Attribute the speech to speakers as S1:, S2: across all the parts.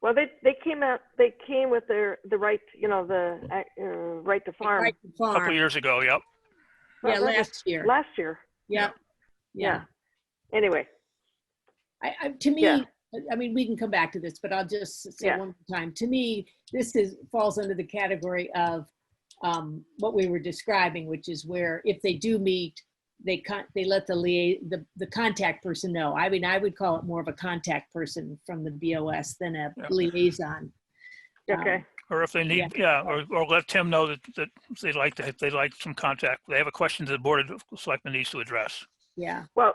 S1: Well, they, they came out, they came with their, the right, you know, the, uh, right to farm.
S2: Right to
S3: a couple
S2: farm.
S3: years ago, yep.
S2: Yeah,
S1: Well, that was
S2: last year.
S1: Last year,
S2: Yep. Yeah.
S1: anyway,
S2: I, I, to me,
S1: Yeah.
S2: I mean, we can come back to this, but I'll just say
S1: Yeah.
S2: one more time. To me, this is falls under the category of um, what we were describing, which is where if they do meet, they con- they let the lia- the the contact person know. I mean, I would call it more of a contact person from the BOS than a
S3: Yeah.
S2: liaison. Um,
S1: okay,
S3: Or if they need, yeah, or, or let Tim know that, that they'd like to, they'd like some contact. They have a question that the board of selectmen needs to address.
S2: Yeah.
S1: well,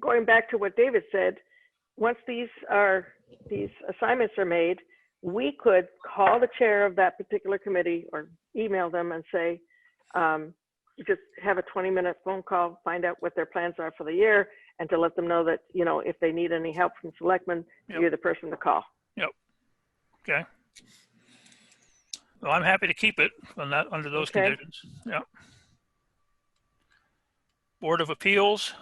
S1: going back to what David said, once these are, these assignments are made, we could call the chair of that particular committee or email them and say, um, just have a 20-minute phone call, find out what their plans are for the year, and to let them know that, you know, if they need any help from selectmen,
S3: Yep.
S1: you're the person to call.
S3: So I'm happy to keep it on that, under those
S1: Okay.
S3: conditions. Yeah. Board of Appeals,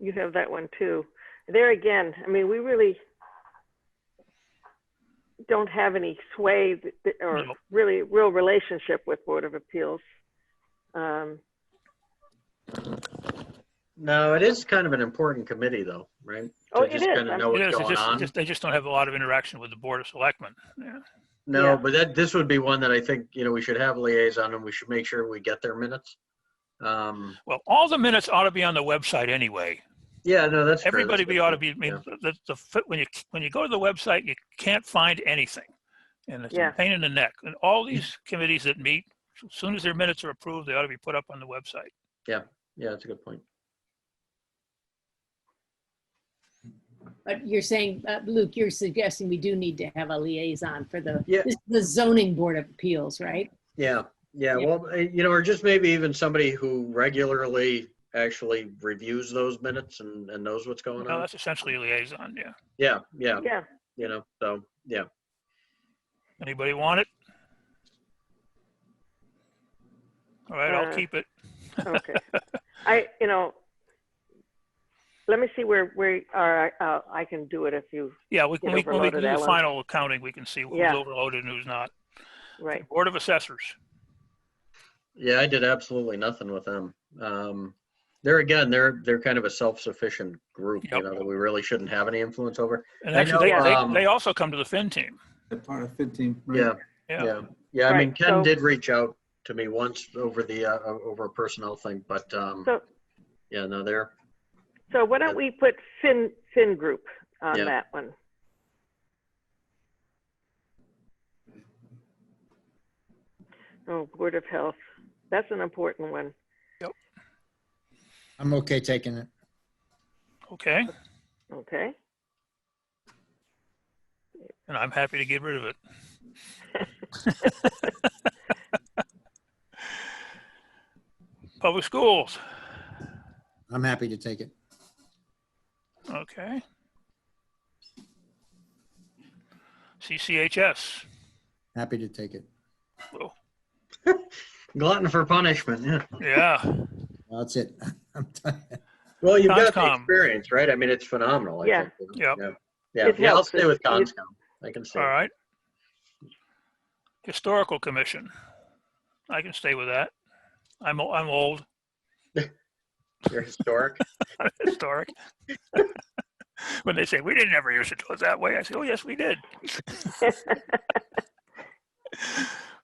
S1: You have that one too. There again, I mean, we really don't have any sway th- th- or
S3: No.
S1: really real relationship with Board of Appeals. Um,
S4: No, it is kind of an important committee though, right?
S1: Oh,
S4: To
S1: it
S4: just
S1: is.
S4: kind of
S1: I'm-
S4: know
S3: it
S4: what's
S3: is, it's
S4: going
S3: just- it's
S4: on.
S3: just, they just don't have a lot of interaction with the board of selectmen. Yeah.
S1: Yeah.
S4: No, but that, this would be one that I think, you know, we should have liaison and we should make sure we get their minutes. Um,
S3: Well, all the minutes ought to be on the website anyway.
S4: yeah, no, that's. true. That's
S3: Everybody
S4: a good
S3: we ought to
S4: point.
S3: be, I mean,
S4: Yeah.
S3: the, the, fi- when you, when you go to the website, you can't find anything. And it's
S1: Yeah.
S3: a pain in the neck. And
S4: Mm.
S3: all these committees that meet, as soon as their minutes are approved, they ought to be put up on the website.
S4: Yeah, that's a good point.
S2: But you're saying, uh, Luke, you're suggesting we do need to have a liaison for the
S4: Yeah.
S2: this is the zoning board of appeals, right?
S4: Yeah, yeah,
S2: Yeah.
S4: well, eh, you know, or just maybe even somebody who regularly actually reviews those minutes and, and knows what's going
S3: No,
S4: on.
S3: Oh, that's essentially a liaison, yeah.
S4: Yeah, yeah,
S1: yeah,
S4: you know, so, yeah.
S3: Anybody want it? All right, I'll
S1: Uh,
S3: keep it.
S1: okay. I, you know, let me see where, where, or I, uh, I can do it if you,
S3: Yeah, we,
S1: get
S3: when we, when we do
S1: overloaded,
S3: the
S1: Alan.
S3: final accounting, we can see who's
S1: Yeah.
S3: overloaded and who's not.
S1: right.
S3: Board of Assessors,
S4: Yeah, I did absolutely nothing with them. Um, they're again, they're they're kind of a self-sufficient group, you
S3: Yep.
S4: know, that we really shouldn't have any influence over.
S3: and
S4: I
S3: actually,
S4: know,
S3: they, they,
S4: um,
S3: they also come to the Fin team.
S5: They're part of 15. right?
S4: Yeah,
S3: Yeah,
S4: yeah, yeah. I mean,
S1: Right,
S4: Ken
S1: so-
S4: did reach out to me once over the uh, o- over a personnel thing, but um,
S1: So-
S4: yeah, no, they're
S1: So why don't we put Fin, Fin Group on
S4: Yeah.
S1: that one? Oh, Board of Health, that's an important one.
S6: I'm okay taking it.
S3: okay,
S1: Okay,
S3: and I'm happy to get rid of it. Public Schools,
S6: I'm happy to take it.
S3: okay. CCHS,
S6: Happy to take it.
S3: Whoa,
S4: glutton for punishment. Yeah.
S3: yeah,
S6: That's it. I'm done.
S4: Well, you've got the
S3: Conscom.
S4: experience, right? I mean, it's phenomenal. I
S1: Yeah.
S4: Think, you
S3: Yep.
S4: know? Yeah. Yeah.
S1: It
S4: yeah I'll
S1: helps.
S4: stay with
S1: It- it-
S4: Conscom. I can see.
S3: all right. Historical Commission, I can stay with that. I'm, o- I'm old.
S4: You're historic.
S3: historic. when they say we didn't ever use it to it that way, I say, oh yes, we did.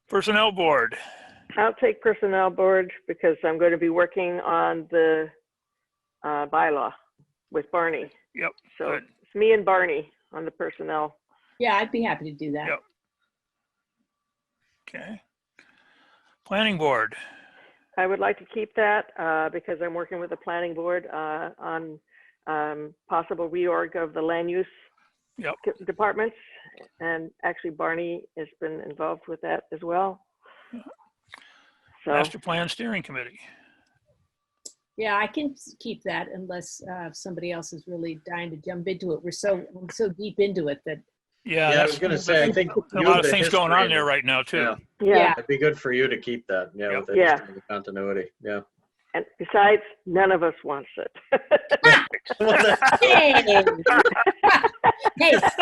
S3: Personnel board.
S1: I'll take Personnel Board because I'm going to be working on the uh, bylaw with Barney.
S3: Yep,
S1: So
S3: good.
S1: it's me and Barney on the Personnel.
S2: Yeah, I'd be happy to do that.
S3: Yep. Okay. Planning board.
S1: I would like to keep that uh, because I'm working with the Planning Board uh, on um, possible reorg of the land use
S3: Yep.
S1: c- departments. And actually Barney has been involved with that as well. So,
S3: Mm-hmm. Master plan steering committee.
S2: Yeah, I can s- keep that unless uh, somebody else is really dying to jump into it. We're so I'm so deep into it that
S3: Yeah.
S4: yeah, I
S3: that's-
S4: was going to say, I think
S3: A
S4: you
S3: lot
S4: have
S3: of
S4: the
S3: things going on
S4: history.
S3: there right now too.
S4: Yeah.
S1: yeah,
S4: It'd be good for you to keep that. Yeah.
S3: Yep.
S4: With the
S1: Yeah.
S4: history and continuity. Yeah.
S1: and besides, none of us wants it.
S4: Well, that-
S2: hey,